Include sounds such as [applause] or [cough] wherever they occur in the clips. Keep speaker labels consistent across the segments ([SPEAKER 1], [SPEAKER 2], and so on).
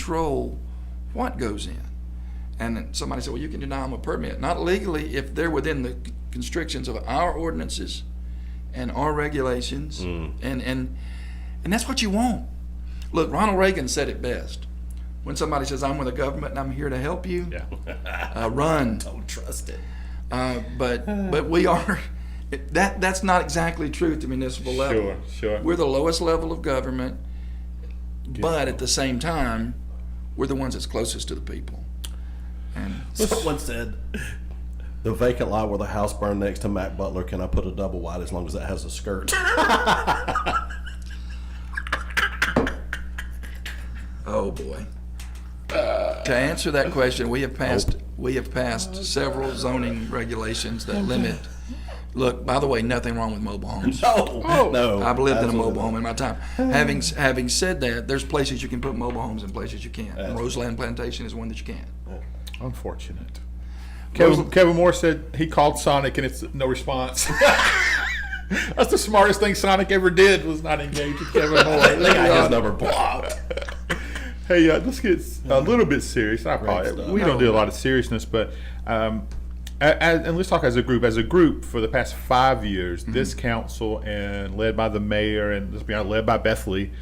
[SPEAKER 1] control what goes in. And then somebody said, well, you can deny them a permit. Not legally, if they're within the constrictions of our ordinances and our regulations.
[SPEAKER 2] Mm.
[SPEAKER 1] And, and, and that's what you want. Look, Ronald Reagan said it best. When somebody says, I'm with the government and I'm here to help you,
[SPEAKER 3] [laughs]
[SPEAKER 1] uh, run.
[SPEAKER 2] [laughs] Don't trust it.
[SPEAKER 1] Uh, but, but we are, [laughs] that, that's not exactly true at the municipal level.
[SPEAKER 3] Sure, sure.
[SPEAKER 1] We're the lowest level of government, but at the same time, we're the ones that's closest to the people. And
[SPEAKER 2] Someone said the vacant lot where the house burned next to Mac Butler. Can I put a double wide as long as that has
[SPEAKER 1] [laughs]
[SPEAKER 2] a skirt?
[SPEAKER 1] oh boy. To answer that question, we have passed we have passed several zoning regulations that limit. Look, by the way, nothing wrong with mobile homes.
[SPEAKER 2] no,
[SPEAKER 1] Oh.
[SPEAKER 2] no.
[SPEAKER 1] I've lived in a mobile
[SPEAKER 2] absolutely
[SPEAKER 1] home in my time. Having s- having said that, there's places you can put mobile homes and places you can't. And Roseland Plantation is one that you can't.
[SPEAKER 3] Unfortunate. Kevin, Kevin Moore said he called Sonic and it's no response. [laughs] That's the smartest thing Sonic ever did was not engage with Kevin
[SPEAKER 2] not. They got
[SPEAKER 3] [laughs]
[SPEAKER 2] his
[SPEAKER 3] Moore.
[SPEAKER 2] number blocked.
[SPEAKER 3] hey, uh, let's get a little bit serious. I
[SPEAKER 2] stuff.
[SPEAKER 3] probably, we don't do a lot of seriousness, but um, a- a- and let's talk as a group. As a group, for the past five years, this council and led by the mayor and let's be honest, led by Bethley,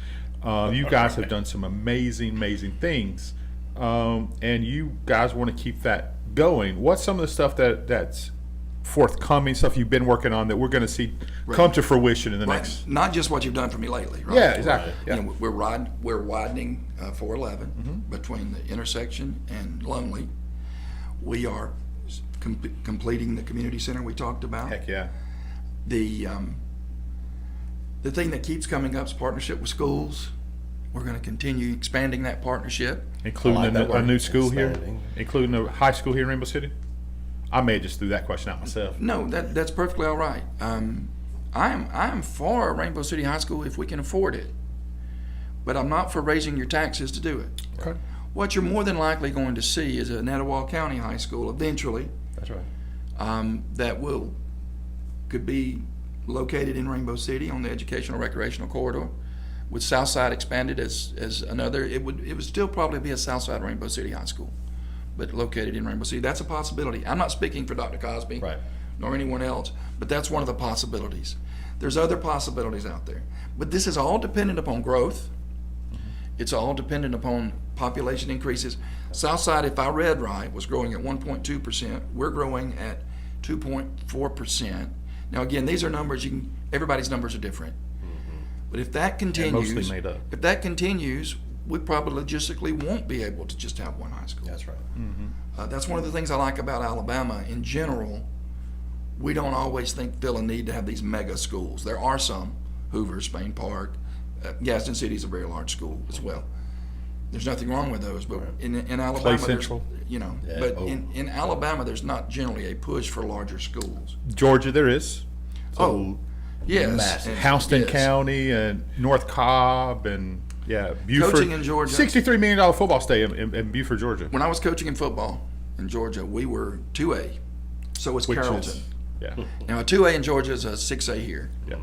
[SPEAKER 3] uh, you guys have done some amazing, amazing things, um, and you guys want to keep that going. What's some of the stuff that that's forthcoming stuff you've been working on that we're going to see come to fruition in the
[SPEAKER 1] Right.
[SPEAKER 3] next?
[SPEAKER 1] Not just what you've done for me lately, right?
[SPEAKER 3] Yeah, exactly.
[SPEAKER 1] You
[SPEAKER 3] Yeah. Mm-hmm.
[SPEAKER 1] know, we're rod, we're widening uh, 411 between the intersection and Lonely. We are s- com- completing the community center we talked about.
[SPEAKER 3] Heck yeah.
[SPEAKER 1] The um, the thing that keeps coming up is partnership with schools. We're going to continue expanding that partnership.
[SPEAKER 3] Including
[SPEAKER 2] I like
[SPEAKER 3] a,
[SPEAKER 2] that
[SPEAKER 3] new- a
[SPEAKER 2] word,
[SPEAKER 3] new school
[SPEAKER 2] expanding.
[SPEAKER 3] here, including a high school here in Rainbow City. I may have just threw that question out myself.
[SPEAKER 1] No, that that's perfectly all right. Um, I am I am for Rainbow City High School if we can afford it, but I'm not for raising your taxes to do it.
[SPEAKER 3] Okay,
[SPEAKER 1] What you're more than likely going to see is a Nettowal County High School eventually
[SPEAKER 2] That's right.
[SPEAKER 1] um, that will could be located in Rainbow City on the educational recreational corridor, with Southside expanded as as another. It would it would still probably be a Southside Rainbow City High School, but located in Rainbow City. That's a possibility. I'm not speaking for Dr. Cosby
[SPEAKER 2] Right.
[SPEAKER 1] nor anyone else, but that's one of the possibilities. There's other possibilities out there, but this is all dependent upon growth.
[SPEAKER 3] Mm-hmm.
[SPEAKER 1] It's all dependent upon population increases. Southside, if I read right, was growing at 1.2%. We're growing at 2.4%. Now, again, these are numbers you can, everybody's numbers are different. But if that
[SPEAKER 3] Mm-hmm. And
[SPEAKER 1] continues,
[SPEAKER 3] mostly made up.
[SPEAKER 1] if that continues, we probably logistically won't be able to just have one high school.
[SPEAKER 2] That's right.
[SPEAKER 1] Uh, that's one of the things I like about Alabama in general. We don't always think feel a need to have these mega schools. There are some, Hoover, Spain Park, uh, Gaston City is a very large school as well. There's nothing wrong with those, but in, in Alabama, there's-
[SPEAKER 3] Central.
[SPEAKER 1] you know,
[SPEAKER 2] Yeah,
[SPEAKER 1] but
[SPEAKER 2] oh.
[SPEAKER 1] in, in Alabama, there's not generally a push for larger schools.
[SPEAKER 3] Georgia, there is.
[SPEAKER 1] oh, yes,
[SPEAKER 2] massive.
[SPEAKER 1] and-
[SPEAKER 3] Houston
[SPEAKER 1] yes.
[SPEAKER 3] County and North Cobb and yeah, Buford.
[SPEAKER 1] Coaching in Georgia.
[SPEAKER 3] Sixty-three million dollar football stadium in, in Buford, Georgia.
[SPEAKER 1] When I was coaching in football in Georgia, we were two A, so was
[SPEAKER 3] Which
[SPEAKER 1] Carrollton.
[SPEAKER 3] is
[SPEAKER 1] [laughs]
[SPEAKER 3] yeah,
[SPEAKER 1] Now a two A in Georgia is a six A here.
[SPEAKER 3] yeah.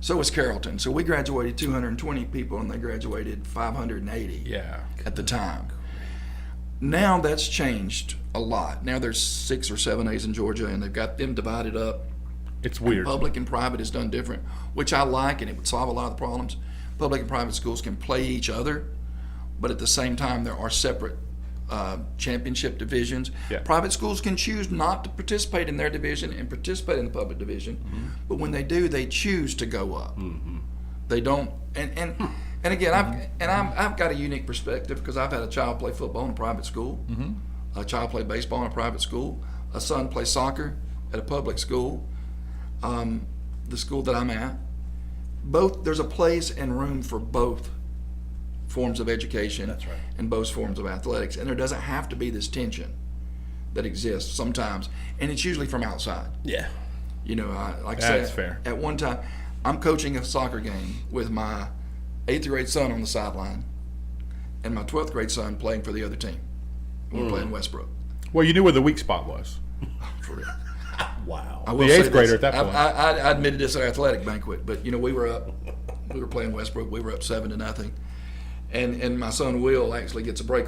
[SPEAKER 1] So was Carrollton. So we graduated 220 people, and they graduated 580
[SPEAKER 3] yeah.
[SPEAKER 1] at the time. Now that's changed a lot. Now there's six or seven A's in Georgia, and they've got them divided up.
[SPEAKER 3] It's weird.
[SPEAKER 1] Public and private is done different, which I like, and it would solve a lot of the problems. Public and private schools can play each other, but at the same time, there are separate uh, championship divisions.
[SPEAKER 3] Yeah.
[SPEAKER 1] Private schools can choose not to participate in their division and participate in the public division, but when they do, they choose to go up. They don't, and and and again, I've and I'm, I've got a unique perspective because I've had a child play football in a private school, a child play baseball in a private school, a son play soccer at a public school, um, the school that I'm at. Both there's a place and room for both forms of education
[SPEAKER 2] That's right.
[SPEAKER 1] and both forms of athletics, and there doesn't have to be this tension that exists sometimes, and it's usually from outside.
[SPEAKER 2] Yeah.
[SPEAKER 1] You know, I, like I
[SPEAKER 3] That's
[SPEAKER 1] said,
[SPEAKER 3] fair.
[SPEAKER 1] at one time, I'm coaching a soccer game with my eighth grade son on the sideline and my 12th grade son playing for the other team. We're playing Westbrook.
[SPEAKER 3] Well, you knew where the weak spot was.
[SPEAKER 1] For real.
[SPEAKER 2] Wow.
[SPEAKER 1] I will
[SPEAKER 3] The eighth
[SPEAKER 1] say
[SPEAKER 3] grader
[SPEAKER 1] this.
[SPEAKER 3] at that
[SPEAKER 1] I-
[SPEAKER 3] point.
[SPEAKER 1] I, I, I admitted this at our athletic banquet, but you know we were up, we were playing Westbrook. We were up seven to nothing, and and my son Will actually gets a break